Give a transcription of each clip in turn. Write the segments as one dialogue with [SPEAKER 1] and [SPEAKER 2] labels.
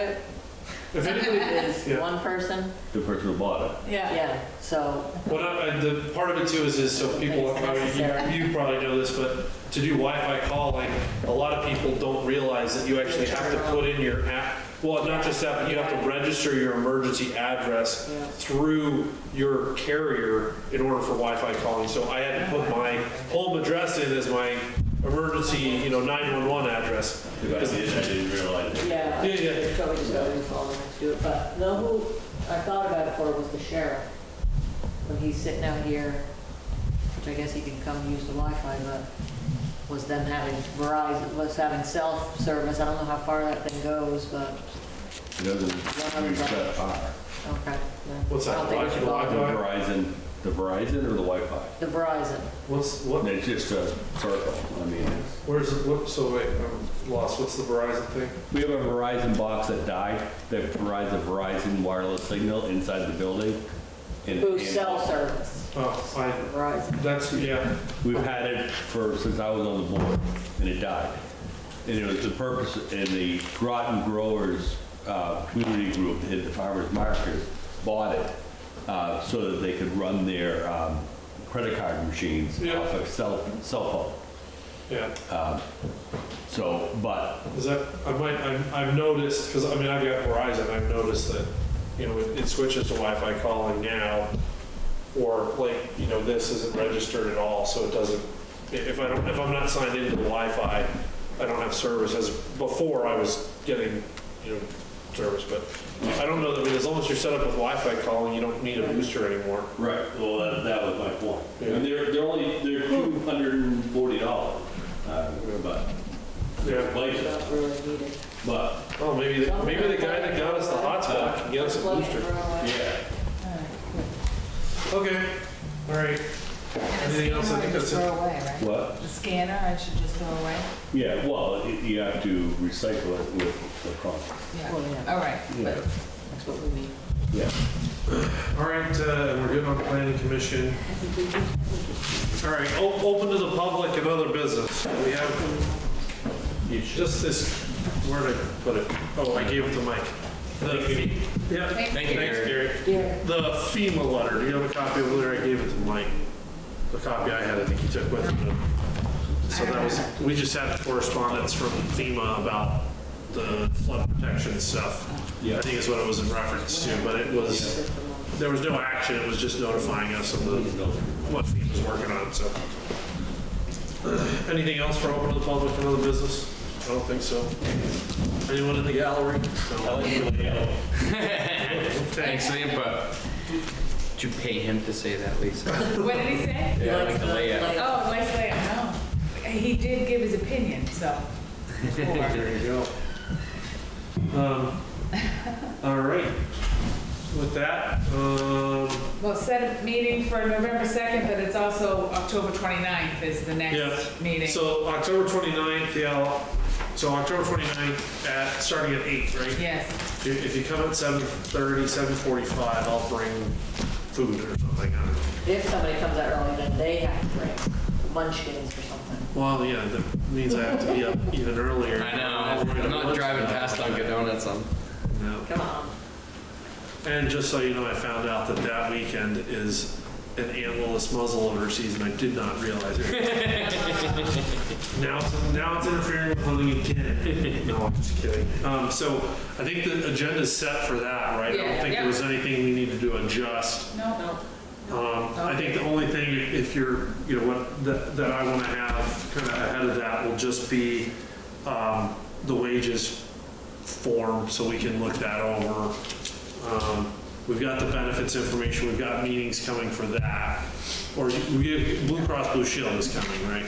[SPEAKER 1] it.
[SPEAKER 2] If anybody,
[SPEAKER 1] As
[SPEAKER 2] Yeah.
[SPEAKER 1] one person,
[SPEAKER 3] the person who bought it.
[SPEAKER 4] Yeah.
[SPEAKER 1] yeah, so,
[SPEAKER 2] what I, I- the part of it too is, is so people,
[SPEAKER 1] It's
[SPEAKER 2] I mean,
[SPEAKER 1] necessary.
[SPEAKER 2] you, you probably know this, but to do Wi-Fi calling, a lot of people don't realize that you actually have to put in your app. Well, not just that, but you have to register your emergency address
[SPEAKER 1] Yeah.
[SPEAKER 2] through your carrier in order for Wi-Fi calling. So I had to put my home address in as my emergency, you know, 911 address.
[SPEAKER 3] I did, I didn't realize it.
[SPEAKER 1] yeah.
[SPEAKER 2] Yeah, yeah.
[SPEAKER 1] They Probably just go in and follow them to do it, but know who I thought about it for was the sheriff. When he's sitting out here, which I guess he can come use the Wi-Fi, but was them having Verizon, was having self-service. I don't know how far that thing goes, but,
[SPEAKER 3] It doesn't reach that far.
[SPEAKER 1] okay. yeah.
[SPEAKER 2] What's that,
[SPEAKER 1] I don't think we should
[SPEAKER 2] Wi-Fi?
[SPEAKER 3] The
[SPEAKER 1] bother.
[SPEAKER 3] Verizon, the Verizon or the Wi-Fi?
[SPEAKER 1] The Verizon.
[SPEAKER 2] What's, what,
[SPEAKER 3] It's just a circle, I mean, it's-
[SPEAKER 2] where's, what, so wait, I'm lost. What's the Verizon thing?
[SPEAKER 3] we have a Verizon box that died that provides a Verizon wireless signal inside the building. and-
[SPEAKER 1] Who's
[SPEAKER 3] and-
[SPEAKER 1] cell service,
[SPEAKER 2] Oh, I,
[SPEAKER 1] Verizon.
[SPEAKER 2] that's, yeah.
[SPEAKER 3] We've had it for, since I was on the board, and it died. And it was the purpose, and the Groton Growers uh, Community Group, in the farmers market, bought it uh, so that they could run their um, credit card machines
[SPEAKER 2] Yeah.
[SPEAKER 3] off of cell, cell phone.
[SPEAKER 2] Yeah,
[SPEAKER 3] So, but,
[SPEAKER 2] is that, I might, I've, I've noticed, because I mean, I've got Verizon, I've noticed that, you know, it it switches to Wi-Fi calling now, or like, you know, this isn't registered at all, so it doesn't, i- if I don't, if I'm not signed into the Wi-Fi, I don't have service, as before I was getting, you know, service, but I don't know, that- I mean, as long as you're set up with Wi-Fi calling, you don't need a booster anymore.
[SPEAKER 3] right, well, that, that was my point.
[SPEAKER 2] Yeah. Hmm.
[SPEAKER 3] And they're, they're only, they're $240, uh, but,
[SPEAKER 2] Yeah.
[SPEAKER 1] Don't
[SPEAKER 3] like,
[SPEAKER 1] really need it.
[SPEAKER 3] but,
[SPEAKER 2] Oh, maybe, the- maybe the guy that got us the hotspot can get us a
[SPEAKER 1] Plug it
[SPEAKER 2] booster.
[SPEAKER 1] right away.
[SPEAKER 3] yeah.
[SPEAKER 2] Okay, all right. Anything else? I think that's it.
[SPEAKER 4] Throw away, right?
[SPEAKER 3] What?
[SPEAKER 4] The scanner, I should just throw away?
[SPEAKER 3] Yeah, well, it- you have to recycle it with the cost.
[SPEAKER 4] Yeah.
[SPEAKER 1] Well, yeah.
[SPEAKER 4] All right,
[SPEAKER 3] Yeah.
[SPEAKER 4] but
[SPEAKER 1] That's what we mean.
[SPEAKER 3] Yeah.
[SPEAKER 2] All right, uh, we're good on planning commission. All right, o- open to the public and other business. We have just this, where did I put it? Oh, I gave it to Mike. The fee- Yeah,
[SPEAKER 4] Thank
[SPEAKER 2] thanks,
[SPEAKER 4] you,
[SPEAKER 2] Gary. The FEMA letter, do you have a copy of the letter? I gave it to Mike. The copy I had, I think he took with him. So that was, we just had correspondence from FEMA about the flood protection stuff.
[SPEAKER 3] Yeah.
[SPEAKER 2] I think is what it was in reference to, but it was, there was no action, it was just notifying us of the, what he was working on, so. Anything else for open to the public for other business? I don't think so. Anyone in the gallery? No.
[SPEAKER 5] Thanks for the input. Did you pay him to say that, Lisa?
[SPEAKER 4] what did he say?
[SPEAKER 5] Yeah, like the layout.
[SPEAKER 4] Oh, West Lake, no. He did give his opinion, so. Or-
[SPEAKER 2] There you go. Um, All right. With that, um,
[SPEAKER 4] Well, set a meeting for November 2nd, but it's also October 29th is the
[SPEAKER 2] Yeah.
[SPEAKER 4] next meeting.
[SPEAKER 2] so October 29th, yeah, I'll- so October 29th at, starting at 8, right?
[SPEAKER 4] Yes,
[SPEAKER 2] If if you come at 7:30, 7:45, I'll bring food or something, I don't know.
[SPEAKER 1] If somebody comes out early, then they have to bring munchkins or something.
[SPEAKER 2] Well, yeah, that means I have to be up even earlier.
[SPEAKER 5] I know, I'm not driving past Dunkin' Donuts on.
[SPEAKER 2] No.
[SPEAKER 1] Come on.
[SPEAKER 2] And just so you know, I found out that that weekend is an antlerless muzzleloader season. I did not realize it. now, it's, now it's interfering with hunting again. No, I'm just kidding. Um, so I think the agenda's set for that, right? I don't
[SPEAKER 4] Yeah.
[SPEAKER 2] think there was anything we needed to adjust.
[SPEAKER 4] no, no.
[SPEAKER 2] Um, I think the only thing, if you're, you know, what, that, that I want to have kind of ahead of that will just be, um, the wages form, so we can look that over. Um, We've got the benefits information, we've got meetings coming for that, or we get, Blue Cross Blue Shield is coming, right?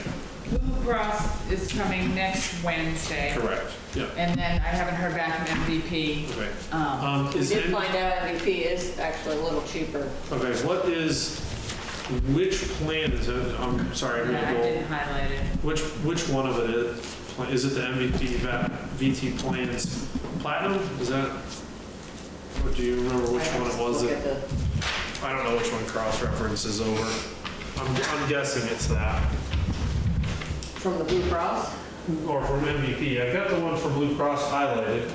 [SPEAKER 4] Blue Cross is coming next Wednesday.
[SPEAKER 2] Correct. Yeah,
[SPEAKER 4] And then I haven't heard back from MVP.
[SPEAKER 2] okay.
[SPEAKER 4] Um,
[SPEAKER 2] Um,
[SPEAKER 1] We
[SPEAKER 2] is
[SPEAKER 1] did
[SPEAKER 2] any,
[SPEAKER 1] find out MVP is actually a little cheaper.
[SPEAKER 2] okay, what is, which plan is it, I'm sorry, I'm
[SPEAKER 4] I
[SPEAKER 2] gonna go.
[SPEAKER 4] didn't highlight it.
[SPEAKER 2] Which, which one of it is, is it the MVP, va- VT plans platinum? Is that, or do you remember which one it was?
[SPEAKER 1] Look at
[SPEAKER 2] that-
[SPEAKER 1] the-
[SPEAKER 2] I don't know which one cross-references over. I'm, I'm guessing it's that,
[SPEAKER 1] From the Blue Cross?
[SPEAKER 2] or from MVP. I've got the one from Blue Cross highlighted.